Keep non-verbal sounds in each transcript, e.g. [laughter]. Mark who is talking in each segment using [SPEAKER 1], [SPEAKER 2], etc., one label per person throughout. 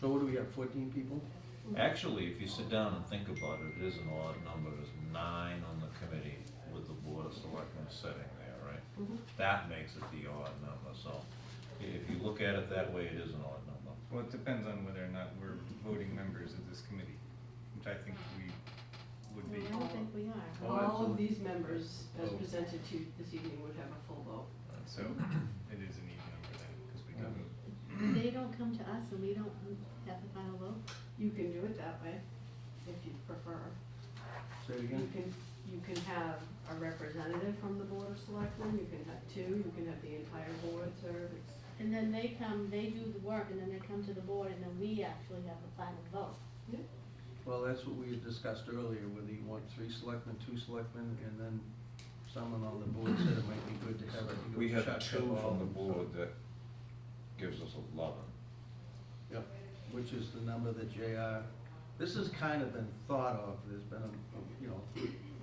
[SPEAKER 1] So what do we have, fourteen people?
[SPEAKER 2] Actually, if you sit down and think about it, it is an odd number, there's nine on the committee with the board of selectmen sitting there, right?
[SPEAKER 3] Mm-hmm.
[SPEAKER 2] That makes it the odd number, so i- if you look at it that way, it is an odd number.
[SPEAKER 4] Well, it depends on whether or not we're voting members of this committee, which I think we would be.
[SPEAKER 5] I don't think we are.
[SPEAKER 1] Oh,
[SPEAKER 3] All of
[SPEAKER 1] absolutely.
[SPEAKER 3] these members, as
[SPEAKER 4] Oh.
[SPEAKER 3] presented to you this evening, would have a full vote.
[SPEAKER 4] So it is an even number then, because we
[SPEAKER 1] Yeah.
[SPEAKER 4] can vote.
[SPEAKER 5] They don't come to us and we don't have the final vote.
[SPEAKER 3] You can do it that way, if you prefer.
[SPEAKER 1] Say it
[SPEAKER 3] You
[SPEAKER 1] again.
[SPEAKER 3] can, you can have a representative from the Board of Selectmen, you can have two, you can have the entire board serve. It's-
[SPEAKER 5] And then they come, they do the work and then they come to the board and then we actually have the final vote.
[SPEAKER 1] Well, that's what we had discussed earlier, whether you want three selectmen, two selectmen, and then someone on the board said it might be good to have it.
[SPEAKER 2] We have
[SPEAKER 1] shotgun
[SPEAKER 2] two
[SPEAKER 1] all
[SPEAKER 2] from the
[SPEAKER 1] of them, so-
[SPEAKER 2] board that gives us eleven.
[SPEAKER 1] Yep, which is the number that JR, this has kind of been thought of, there's been, a you know,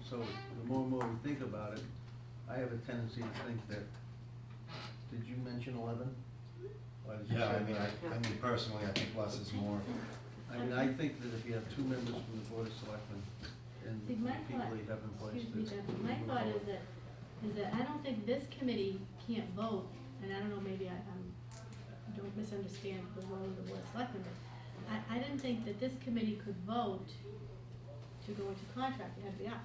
[SPEAKER 1] so the more and more we think about it, I have a tendency to think that, did you mention eleven? Why did you
[SPEAKER 6] Yeah, I
[SPEAKER 1] say
[SPEAKER 6] mean,
[SPEAKER 1] that?
[SPEAKER 6] I, I mean personally, I think less is more.
[SPEAKER 1] I mean, I think that if you have two members from the Board of Selectmen and
[SPEAKER 5] See, my
[SPEAKER 1] the people
[SPEAKER 5] thought-
[SPEAKER 1] you have in place.
[SPEAKER 5] Excuse me,
[SPEAKER 1] that's
[SPEAKER 5] Jeff, my
[SPEAKER 1] moving
[SPEAKER 5] thought is
[SPEAKER 1] forward.
[SPEAKER 5] that, is that I don't think this committee can't vote, and I don't know, maybe I, i don't misunderstand the role of the board of selectmen, but I, I didn't think that this committee could vote to go into contract, it had to be us.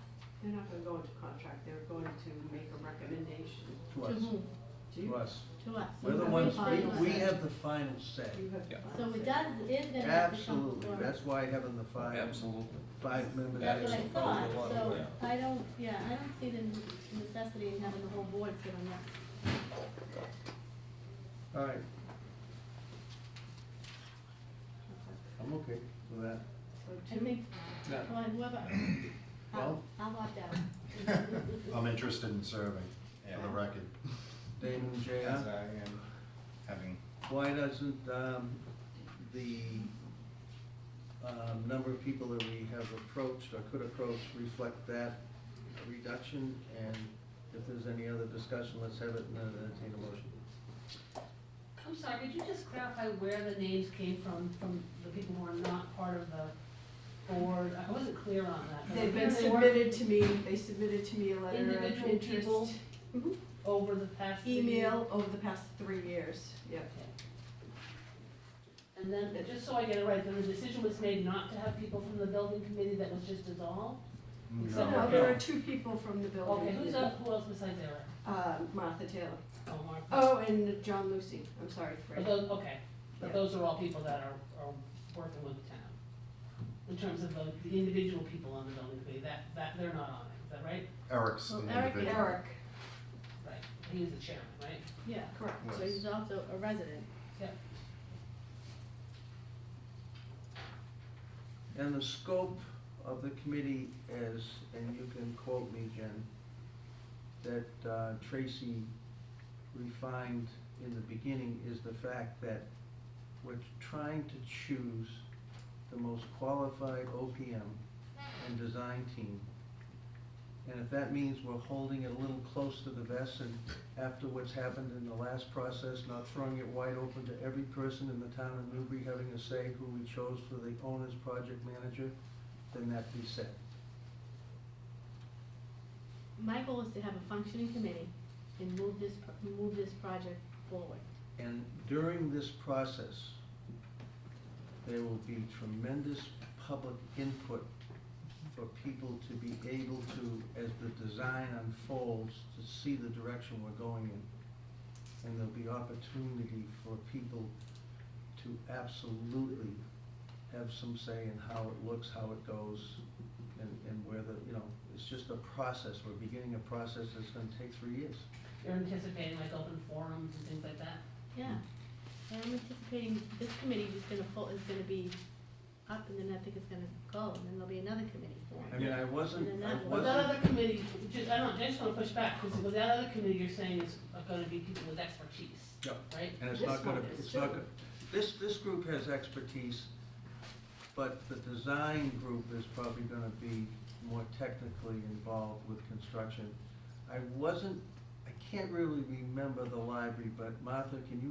[SPEAKER 3] They're not gonna go into contract, they're going to make a recommendation
[SPEAKER 1] To
[SPEAKER 5] To
[SPEAKER 1] us,
[SPEAKER 5] whom?
[SPEAKER 3] to
[SPEAKER 1] to
[SPEAKER 3] you.
[SPEAKER 1] us.
[SPEAKER 5] To us. So
[SPEAKER 1] We're the
[SPEAKER 5] we
[SPEAKER 1] ones,
[SPEAKER 5] final
[SPEAKER 1] we, we
[SPEAKER 5] say.
[SPEAKER 1] have the final say.
[SPEAKER 3] You have the
[SPEAKER 2] Yeah.
[SPEAKER 5] So
[SPEAKER 3] final say.
[SPEAKER 5] it does, it then has to come
[SPEAKER 1] Absolutely,
[SPEAKER 5] before us.
[SPEAKER 1] that's why having the five, five members.
[SPEAKER 5] That's what I
[SPEAKER 1] is-
[SPEAKER 5] thought, so
[SPEAKER 2] Yeah.
[SPEAKER 5] I don't, yeah, I don't see the necessity in having the whole board sit on that.
[SPEAKER 1] All right. I'm okay with that.
[SPEAKER 3] So
[SPEAKER 5] I
[SPEAKER 3] two,
[SPEAKER 5] think,
[SPEAKER 1] Yeah.
[SPEAKER 5] well,
[SPEAKER 1] [coughs]
[SPEAKER 5] whoever, I'll,
[SPEAKER 1] Well-
[SPEAKER 5] I'll opt out.
[SPEAKER 1] [laughs]
[SPEAKER 6] I'm interested in serving, for the
[SPEAKER 4] Yeah.
[SPEAKER 6] record.
[SPEAKER 1] Damon,
[SPEAKER 4] As
[SPEAKER 1] JR,
[SPEAKER 4] I am having,
[SPEAKER 1] why doesn't, um, the, um, number of people that we have approached or could approach reflect that reduction? And if there's any other discussion, let's have it and then entertain a motion.
[SPEAKER 7] I'm sorry, could you just clarify where the names came from, from the people who are not part of the board? I wasn't clear on that.
[SPEAKER 3] they've been submitted to me, they submitted to me a letter of interest.
[SPEAKER 7] Individual people?
[SPEAKER 3] Mhm.
[SPEAKER 7] Over the past. few years.
[SPEAKER 3] Email over the past three years, yeah.
[SPEAKER 7] And then, uh, just so I get it right, then the decision was made not to have people from the building committee that was just dissolved?
[SPEAKER 3] So
[SPEAKER 7] Except
[SPEAKER 3] now
[SPEAKER 7] for-
[SPEAKER 3] there are two people from the building.
[SPEAKER 7] Okay, who's up, who else besides Eric?
[SPEAKER 3] Uh, Martha Taylor.
[SPEAKER 7] Oh, Mark.
[SPEAKER 3] Oh, and John Lucy, I'm sorry,
[SPEAKER 7] But
[SPEAKER 3] Fred.
[SPEAKER 7] those, okay, but
[SPEAKER 3] Yeah.
[SPEAKER 7] those are all people that are, are working with the town. In terms of the, the individual people on the building committee, that, that, they're not on it, is that right?
[SPEAKER 6] Eric's
[SPEAKER 5] Well,
[SPEAKER 6] an
[SPEAKER 5] Eric-
[SPEAKER 6] individual.
[SPEAKER 3] Eric,
[SPEAKER 7] Right, he was the chairman, right?
[SPEAKER 5] Yeah,
[SPEAKER 3] correct.
[SPEAKER 5] so he's also a resident.
[SPEAKER 1] And the scope of the committee is, and you can quote me, Jen, that uh, Tracy refined in the beginning is the fact that we're trying to choose the most qualified OPM and design team. And if that means we're holding it a little close to the vest and after what's happened in the last process, not throwing it wide open to every person in the town of Newbury having a say who we chose for the owner's project manager, then that be said.
[SPEAKER 5] My goal is to have a functioning committee and move this, pro- move this project forward.
[SPEAKER 1] And during this process, there will be tremendous public input for people to be able to, as the design unfolds, to see the direction we're going in. And there'll be opportunity for people to absolutely have some say in how it looks, how it goes, and, and where the, you know, it's just a process. We're beginning a process that's gonna take three years.
[SPEAKER 7] You're anticipating like open forums and things like that?
[SPEAKER 5] Yeah, and I'm anticipating this committee is gonna, fo- is gonna be up and then I think it's gonna go and then there'll be another committee
[SPEAKER 1] I
[SPEAKER 5] formed.
[SPEAKER 1] mean, I wasn't, I
[SPEAKER 5] And that-
[SPEAKER 7] Well, that
[SPEAKER 1] wasn't,
[SPEAKER 7] other committee, just, I don't, I just wanna push back, because with that other committee, you're saying is gonna be people with expertise,
[SPEAKER 1] Yep.
[SPEAKER 7] right?
[SPEAKER 1] And it's
[SPEAKER 3] This
[SPEAKER 1] not gonna,
[SPEAKER 3] one is
[SPEAKER 1] it's not
[SPEAKER 3] too.
[SPEAKER 1] gonna, this, this group has expertise, but the design group is probably gonna be more technically involved with construction. I wasn't, I can't really remember the library, but Martha, can you